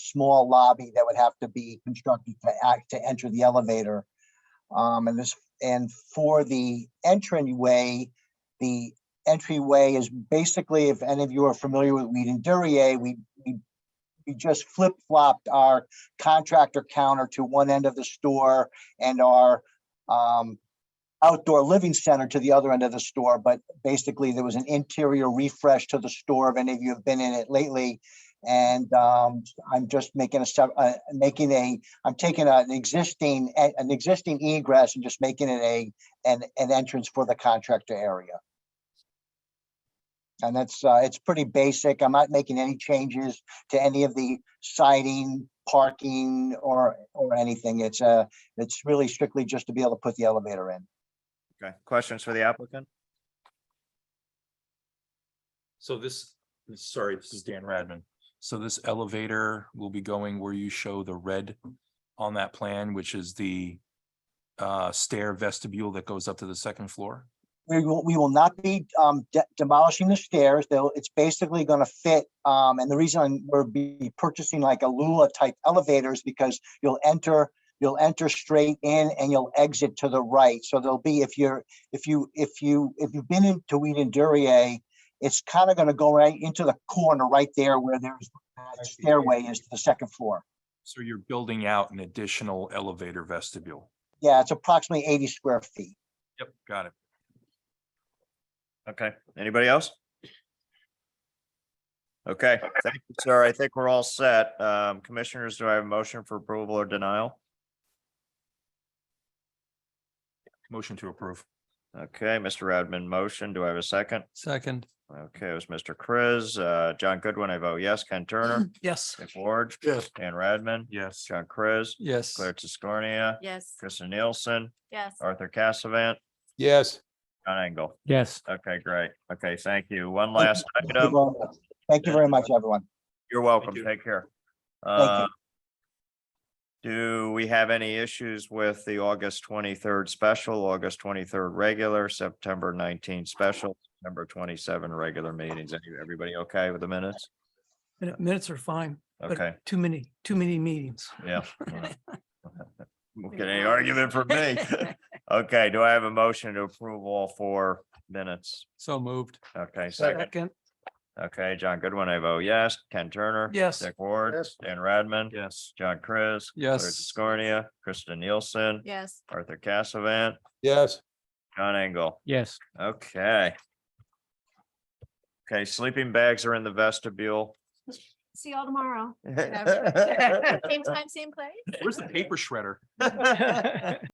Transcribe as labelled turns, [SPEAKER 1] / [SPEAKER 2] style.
[SPEAKER 1] small lobby that would have to be constructed to act, to enter the elevator. Um, and this, and for the entryway, the entryway is basically, if any of you are familiar with Weed and Durier, we, we we just flip flopped our contractor counter to one end of the store and our um, outdoor living center to the other end of the store, but basically there was an interior refresh to the store. If any of you have been in it lately, and um, I'm just making a sep- uh, making a, I'm taking an existing, a- an existing egress and just making it a, an, an entrance for the contractor area. And that's, uh, it's pretty basic. I'm not making any changes to any of the siding, parking, or, or anything. It's, uh, it's really strictly just to be able to put the elevator in.
[SPEAKER 2] Okay, questions for the applicant?
[SPEAKER 3] So this, sorry, this is Dan Radman. So this elevator will be going where you show the red on that plan, which is the uh, stair vestibule that goes up to the second floor?
[SPEAKER 1] We will, we will not be um, de- demolishing the stairs, though it's basically going to fit. um, And the reason I'm- we're be purchasing like a Lula type elevators because you'll enter, you'll enter straight in and you'll exit to the right. So there'll be, if you're, if you, if you, if you've been into Weed and Durier, it's kind of going to go right into the corner right there where there's that stairway is to the second floor.
[SPEAKER 3] So you're building out an additional elevator vestibule?
[SPEAKER 1] Yeah, it's approximately 80 square feet.
[SPEAKER 3] Yep. Got it.
[SPEAKER 2] Okay, anybody else? Okay, thank you, sir. I think we're all set. Um, commissioners, do I have a motion for approval or denial?
[SPEAKER 3] Motion to approve.
[SPEAKER 2] Okay, Mr. Radman, motion. Do I have a second?
[SPEAKER 4] Second.
[SPEAKER 2] Okay, it was Mr. Chris, uh, John Goodwin, I vote yes. Ken Turner,
[SPEAKER 4] Yes.
[SPEAKER 2] Dick Ward,
[SPEAKER 4] Yes.
[SPEAKER 2] Dan Radman,
[SPEAKER 3] Yes.
[SPEAKER 2] John Chris,
[SPEAKER 4] Yes.
[SPEAKER 2] Claire Tiscornia,
[SPEAKER 5] Yes,
[SPEAKER 2] Kristen Nielsen,
[SPEAKER 5] yes.
[SPEAKER 2] Arthur Cassavant,
[SPEAKER 4] Yes.
[SPEAKER 2] John Engel.
[SPEAKER 4] Yes.
[SPEAKER 2] Okay, great. Okay, thank you. One last
[SPEAKER 1] Thank you
[SPEAKER 2] item.
[SPEAKER 1] very much. Thank you very much, everyone.
[SPEAKER 2] You're welcome.
[SPEAKER 3] you.
[SPEAKER 2] Take care.
[SPEAKER 1] you.
[SPEAKER 2] Uh, Do we have any issues with the August twenty-third special, August twenty-third regular, September nineteenth special, September twenty-seven regular meetings? Any- Everybody okay with the minutes?
[SPEAKER 6] Minute- Minutes are fine, but
[SPEAKER 2] Okay,
[SPEAKER 6] too many, too many meetings.
[SPEAKER 2] yeah. Won't Get any argument from me? Okay, do I have a motion to approve all four minutes?
[SPEAKER 4] So moved.
[SPEAKER 2] Okay, second.
[SPEAKER 6] Second,
[SPEAKER 2] Okay, John Goodwin, I vote yes. Ken Turner.
[SPEAKER 6] Yes.
[SPEAKER 2] Dick Ward,
[SPEAKER 4] Yes.
[SPEAKER 2] Dan Radman.
[SPEAKER 3] Yes.
[SPEAKER 2] John Chris. Claire
[SPEAKER 4] Yes.
[SPEAKER 2] Scornia, Kristen Nielsen,
[SPEAKER 5] Yes,
[SPEAKER 2] Arthur Cassavant,
[SPEAKER 4] Yes.
[SPEAKER 2] John Engel.
[SPEAKER 4] Yes.
[SPEAKER 2] Okay. Okay, sleeping bags are in the vestibule.
[SPEAKER 5] see y'all tomorrow.
[SPEAKER 2] All
[SPEAKER 5] Same time, same place.
[SPEAKER 3] Where's the paper shredder?